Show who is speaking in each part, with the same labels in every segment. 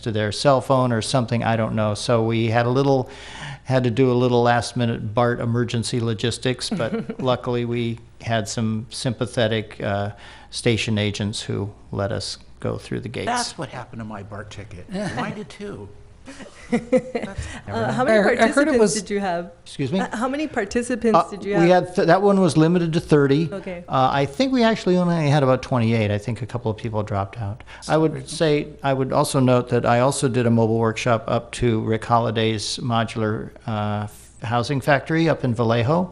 Speaker 1: to their cell phone or something, I don't know. So we had a little, had to do a little last minute BART emergency logistics, but luckily we had some sympathetic uh, station agents who let us go through the gates.
Speaker 2: That's what happened to my BART ticket. Mine did too.
Speaker 3: Uh, how many
Speaker 4: I- I heard it
Speaker 3: participants
Speaker 4: was-
Speaker 3: did you have?
Speaker 1: Excuse me?
Speaker 3: Uh, how many participants
Speaker 1: Uh,
Speaker 3: did you
Speaker 1: We
Speaker 3: have?
Speaker 1: had, th- that one was limited to 30.
Speaker 3: Okay.
Speaker 1: Uh, I think we actually only had about 28. I think a couple of people dropped out. I would say, I would also note that I also did a mobile workshop up to Rick Holliday's modular uh, f- housing factory up in Vallejo.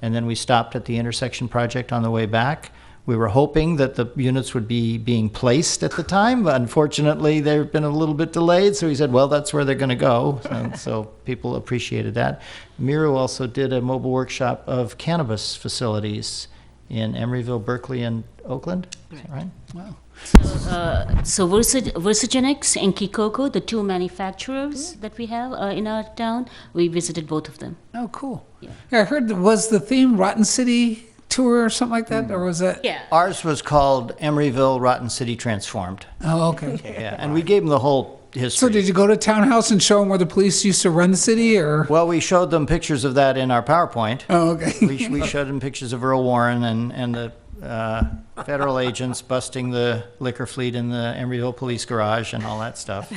Speaker 1: And then we stopped at the intersection project on the way back. We were hoping that the units would be being placed at the time, but unfortunately, they've been a little bit delayed. So he said, well, that's where they're going to go. And so people appreciated that. Miro also did a mobile workshop of cannabis facilities in Emeryville, Berkeley, and Oakland. Is that right?
Speaker 5: So Versag- Versagenix and Kikoko, the two manufacturers that we have uh, in our town, we visited both of them.
Speaker 4: Oh, cool. Yeah, I heard, th- was the theme Rotten City Tour or something like that, or was that?
Speaker 5: Yeah.
Speaker 1: Ours was called Emeryville Rotten City Transformed.
Speaker 4: Oh, okay.
Speaker 1: Yeah, and we gave them the whole
Speaker 4: So
Speaker 1: history.
Speaker 4: did you go to Townhouse and show them where the police used to run the city, or?
Speaker 1: well, we showed them pictures of that in our PowerPoint.
Speaker 4: Oh, okay.
Speaker 1: we, we showed them pictures of Earl Warren and, and the uh, federal agents busting the liquor fleet in the Emeryville police garage and all that stuff.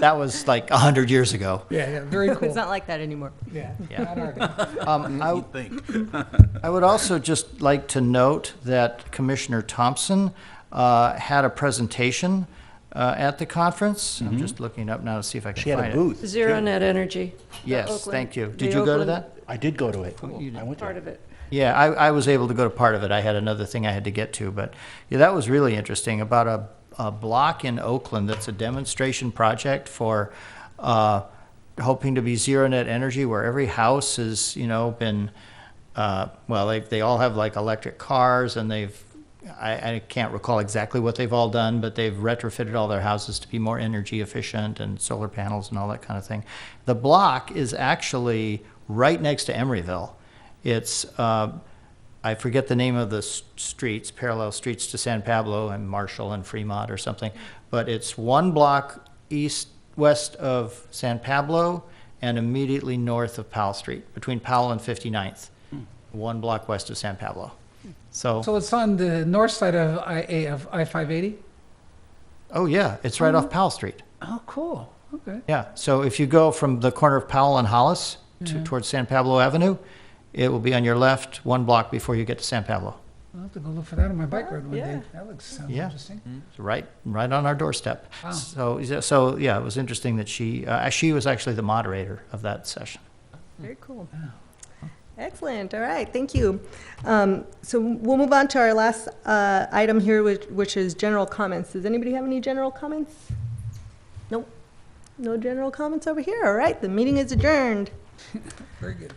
Speaker 1: That was like 100 years ago.
Speaker 4: Yeah, yeah, very
Speaker 3: It's
Speaker 4: cool.
Speaker 3: not like that anymore.
Speaker 4: Yeah.
Speaker 1: Yeah.
Speaker 4: not our day.
Speaker 1: Um, I,
Speaker 2: You think?
Speaker 1: I would also just like to note that Commissioner Thompson uh, had a presentation uh, at the conference. I'm just looking up now to see if I
Speaker 6: Mm-hmm.
Speaker 1: can
Speaker 6: She
Speaker 1: find
Speaker 6: had
Speaker 1: it.
Speaker 6: a booth.
Speaker 7: Zero net energy. the
Speaker 1: Yes,
Speaker 7: Oakland-
Speaker 1: thank you.
Speaker 7: the
Speaker 1: Did you go to
Speaker 7: Oakland
Speaker 1: that?
Speaker 6: I did go to it.
Speaker 1: You
Speaker 6: I went
Speaker 7: Part
Speaker 6: to it.
Speaker 7: of it.
Speaker 1: Yeah, I, I was able to go to part of it. I had another thing I had to get to, but yeah, that was really interesting about a, a block in Oakland that's a demonstration project for uh, hoping to be zero net energy, where every house has you know been uh, well, they they all have like electric cars, and they've I, I can't recall exactly what they've all done, but they've retrofitted all their houses to be more energy efficient and solar panels and all that kind of thing. The block is actually right next to Emeryville. It's uh, I forget the name of the s- streets, parallel streets to San Pablo and Marshall and Fremont or something, but it's one block east west of San Pablo and immediately north of Powell Street, between Powell and 59th, one block west of San Pablo. So,
Speaker 4: So it's on the north side of I, A- of I-580?
Speaker 1: oh yeah, it's right off Powell Street.
Speaker 4: Oh, cool, okay.
Speaker 1: Yeah, so if you go from the corner of Powell and Hollis to, towards San Pablo Avenue, it will be on your left, one block before you get to San Pablo.
Speaker 4: I'll have to go look for that on my bike ride one
Speaker 3: Yeah.
Speaker 4: day. That looks, sounds
Speaker 1: Yeah.
Speaker 4: interesting.
Speaker 1: It's right, right on our doorstep.
Speaker 4: Wow.
Speaker 1: So, so yeah, it was interesting that she, uh, she was actually the moderator of that session.
Speaker 3: Very cool. Excellent, all right, thank you. Um, So we'll move on to our last uh, item here, which which is general comments. Does anybody have any general comments? Nope, no general comments over here, all right, the meeting is adjourned.
Speaker 4: Very good.